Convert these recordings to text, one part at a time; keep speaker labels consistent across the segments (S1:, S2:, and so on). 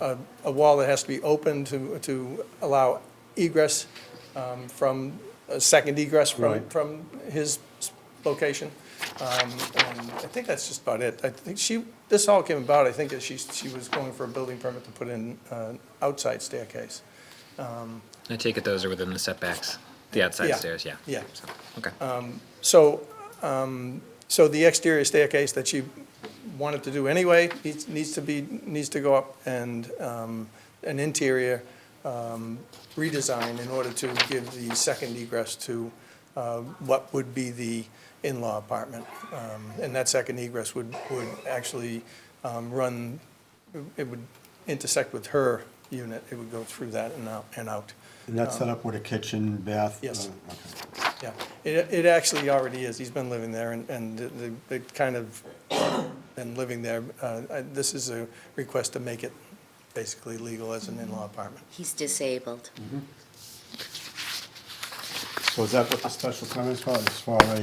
S1: a, a wall that has to be open to, to allow egress um, from, a second egress from,
S2: Right.
S1: from his s- location. Um, And I think that's just about it. I think she, this all came about, I think that she, she was going for a building permit to put in an outside staircase.
S3: I take it those are within the setbacks, the outside
S1: Yeah.
S3: stairs, yeah.
S1: Yeah. Uh,
S3: So, Okay.
S1: So, um, so the exterior staircase that you wanted to do anyway needs, needs to be, needs to go up and, um, an interior, um, redesign in order to give the second egress to, uh, what would be the in-law apartment. Um, and that second egress would, would actually, um, run, it would intersect with her unit. It would go through that and out, and out.
S2: And that's set up with a kitchen, bath?
S1: Yes.
S2: uh, okay.
S1: Yeah, it, it actually already is. He's been living there and, and the, the kind of been living there. Uh, I- this is a request to make it basically legal as an in-law apartment.
S4: He's disabled.
S2: So is that what the special permit is for, as far as,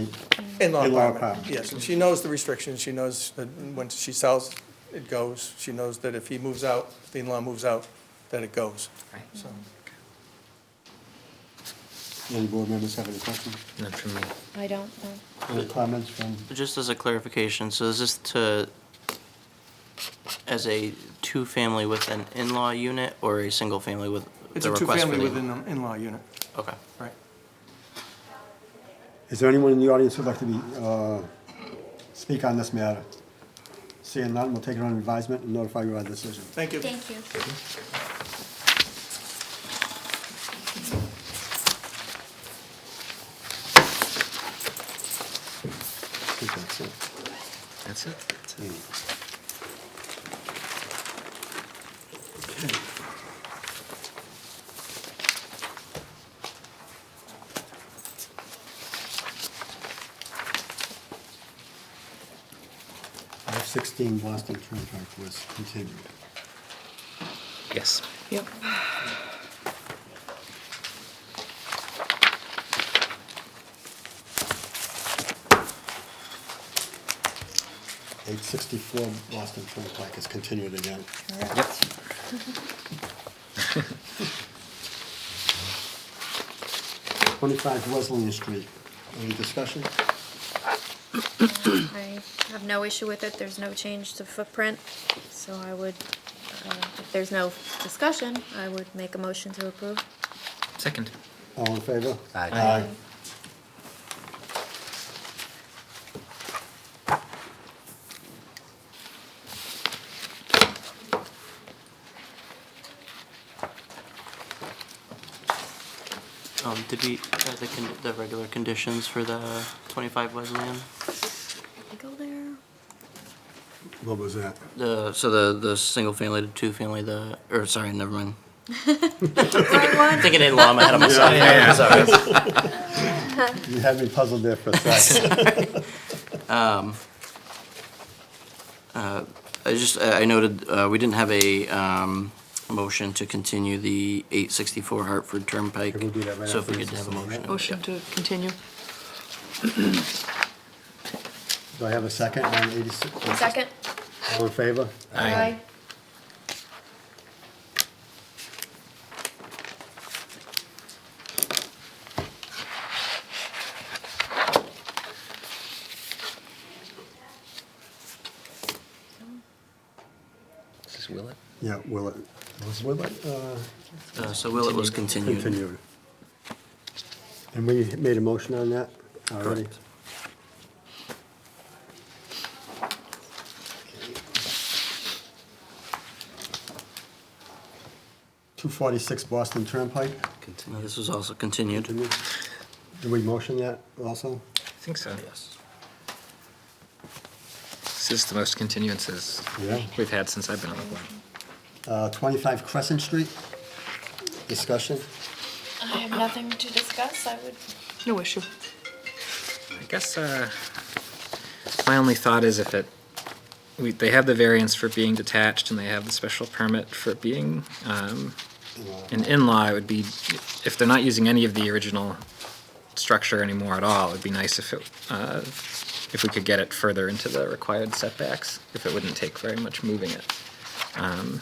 S1: In-law
S2: In-law
S1: apartment,
S2: apartment.
S1: yes. And she knows the restrictions. She knows that when she sells, it goes. She knows that if he moves out, if the in-law moves out, that it goes.
S3: Right.
S1: So,
S2: any board members have any questions?
S3: Not from me.
S5: I don't uh, know.
S2: Any comments from,
S6: Just as a clarification, so is this to, as a two-family with an in-law unit or a single-family with
S1: It's
S6: the
S1: a
S6: request for
S1: two-family
S6: the?
S1: with an in-law unit,
S6: Okay.
S1: right?
S2: is there anyone in the audience who'd like to be, uh, speak on this matter? Seeing none, we'll take it on advisement and notify you of our decision.
S1: Thank you.
S4: you.
S2: I think that's it.
S3: That's it.
S2: Five sixteen Boston Turnpike was continued.
S3: Yes.
S5: Yep.
S2: Eight sixty-four Boston Turnpike is continued again.
S3: Yep.
S2: Twenty-five Wesleyan Street, any discussion?
S5: I have no issue with it. There's no change to footprint. So I would, uh, if there's no discussion, I would make a motion to approve.
S3: Second.
S2: All in favor?
S3: Aye.
S2: Aye.
S6: Um, did we, uh, the, con- the regular conditions for the twenty-five Wesleyan?
S5: Can we Go there.
S2: What was that?
S6: The, so the, the single-family to two-family, the, or sorry, never mind. Thinking in-law, I'm ahead of myself. Sorry.
S2: You had me puzzled there for a second.
S6: I just, I I noted, uh, we didn't have a, um, motion to continue the eight sixty-four Hartford Turnpike.
S2: Can we do that right
S6: So if
S2: after
S6: we
S2: this
S6: could have a
S2: is over,
S6: motion.
S2: right?
S7: Motion to continue.
S2: Do I have a second on eighty-six?
S5: Second?
S2: All in favor?
S3: Aye. This is Willett.
S2: Yeah, Willett. Was Willett uh,
S6: Uh, so Willett was continued.
S2: continued? And we made a motion on that already?
S6: Correct.
S2: Two forty-six Boston Turnpike,
S6: No, This was also continued.
S2: did we, did we motion that also?
S3: I think so.
S6: Yes.
S3: This is the most continuances
S2: Yeah.
S3: we've had since I've been on the board.
S2: Uh, twenty-five Crescent Street, discussion?
S5: I have nothing to discuss. I would.
S7: No issue.
S3: I guess uh, my only thought is if it, we, they have the variance for being detached and they have the special permit for it being um, an in-law, it would be, if they're not using any of the original structure anymore at all, it'd be nice if it, uh, if we could get it further into the required setbacks, if it wouldn't take very much moving it. Um,